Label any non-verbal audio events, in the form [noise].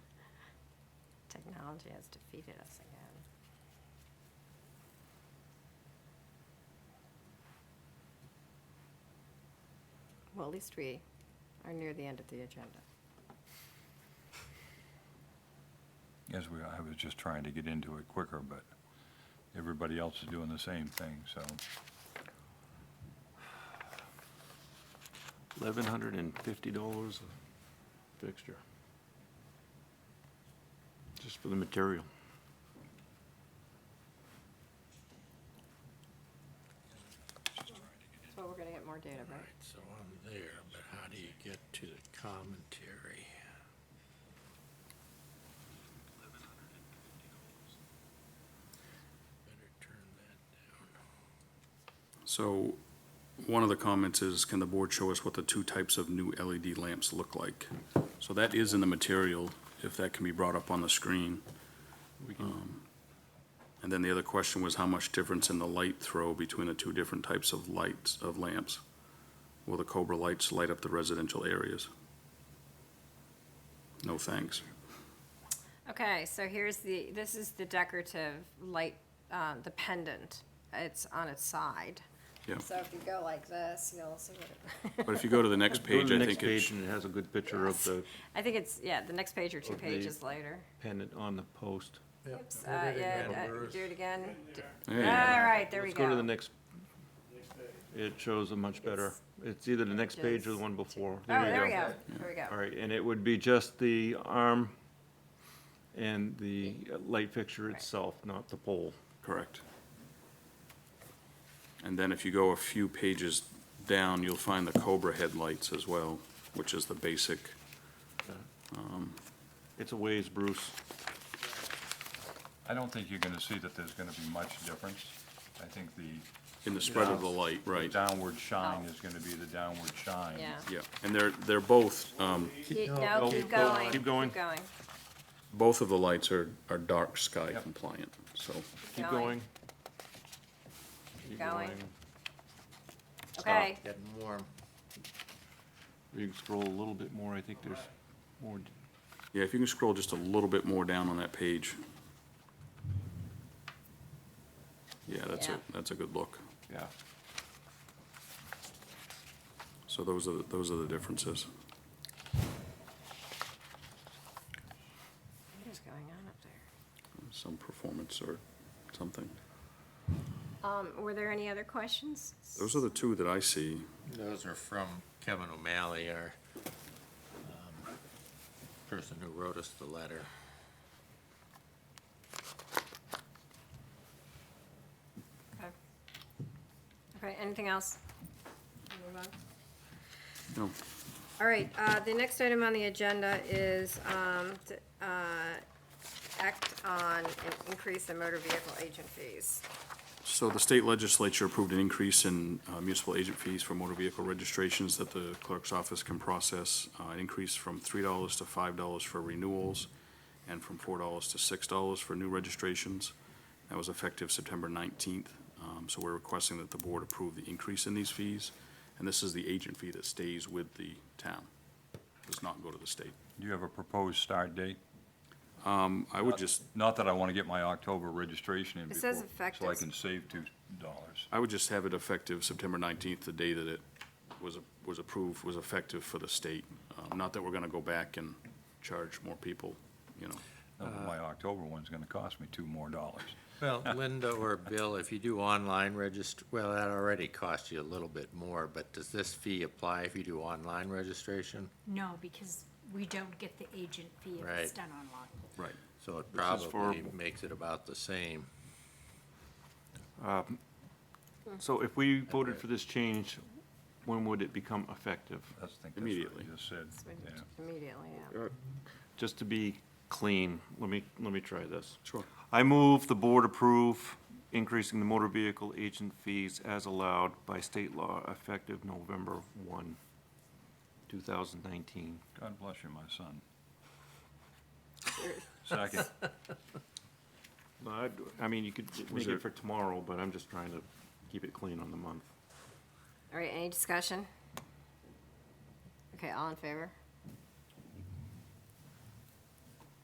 Technology has defeated us again. Well, at least we are near the end of the agenda. Yes, we, I was just trying to get into it quicker, but everybody else is doing the same thing, so. 1,150 dollars a fixture. Just for the material. So we're gonna get more data, right? So I'm there, but how do you get to the commentary? Better turn that down. So, one of the comments is, can the board show us what the two types of new LED lamps look like? So that is in the material, if that can be brought up on the screen. We can- Um, And then the other question was how much difference in the light throw between the two different types of lights, of lamps? Will the Cobra lights light up the residential areas? No thanks. Okay, so here's the, this is the decorative light, um, the pendant. It's on its side. Yeah. So if you go like this, you'll see what it. But if you go to the next Go to page, the I next think it, page sh- and it has a good picture of the I think it's, yeah, the next page or two Of Oh, the- pages later. pendant on the post. Oops, uh, yeah, uh, do it again. D- All yeah, right, there we Let's go. go to the next. It shows a much better, it's either the next page or the one before. Oh, there we go, there we All go. right, and it would be just the arm and the uh, light fixture Right. itself, not the pole. correct. And then if you go a few pages down, you'll find the Cobra headlights as well, which is the basic. It's a ways, Bruce. I don't think you're gonna see that there's gonna be much difference. I think the In the spread of the light, right, downward shine Oh. is gonna be the downward shine. Yeah. yeah. And they're, they're both, um, Keep- No, keep go- going. keep going. Keep going. both of the lights are, are dark sky Yep. compliant, so. Keep Going. going. Keep Going. going. Okay, Getting warm. You can scroll a little bit more, I think there's more, d- Yeah, if you can scroll just a little bit more down on that page. Yeah, that's a, Yeah. that's a good look. yeah. So those are, the- those are the differences. what is going on up there? Some performance or something. Um, were there any other questions? Those are the two that I see. Those are from Kevin O'Malley, our um, person who wrote us the letter. Okay. Okay, anything else? Move on. No, All right, uh, the next item on the agenda is, um, t- uh, act on an increase in motor vehicle agent fees. So the state legislature approved an increase in uh, municipal agent fees for motor vehicle registrations that the clerk's office can process, uh, an increase from three dollars to five dollars for renewals, and from four dollars to six dollars for new registrations. That was effective September nineteenth, um, so we're requesting that the board approve the increase in these fees, and this is the agent fee that stays with the town, does not go to the state. Do you have a proposed start date? Um, I would just, Not that I wanna get my October registration in It before, says so I effective- can save two dollars. I would just have it effective September 19th, the day that it was, was approved, was effective for the state. Um, Not that we're going to go back and charge more people, you know. My October one's gonna cost me two more dollars. Well, Linda or Bill, if you do online regist, well, that already costs you a little bit more, but does this fee apply if you do online registration? No, because we don't get the agent fee if Right. it's done online. Right. So it This is for- probably makes it about the same. Hmm. So if we voted for this change, when would it become effective? That's, I think that's what Immediately. you just said, It's yeah. Immediately, yeah. Just to be clean, let me, let me try this. Sure. I move the board approve increasing the motor vehicle agent fees as allowed by state law effective November one, two thousand nineteen. God bless you, my son. [laughs] Second, I, I mean, you could Was make it it- for tomorrow, but I'm just trying to keep it clean on the month. All right, any discussion? Okay, all in favor?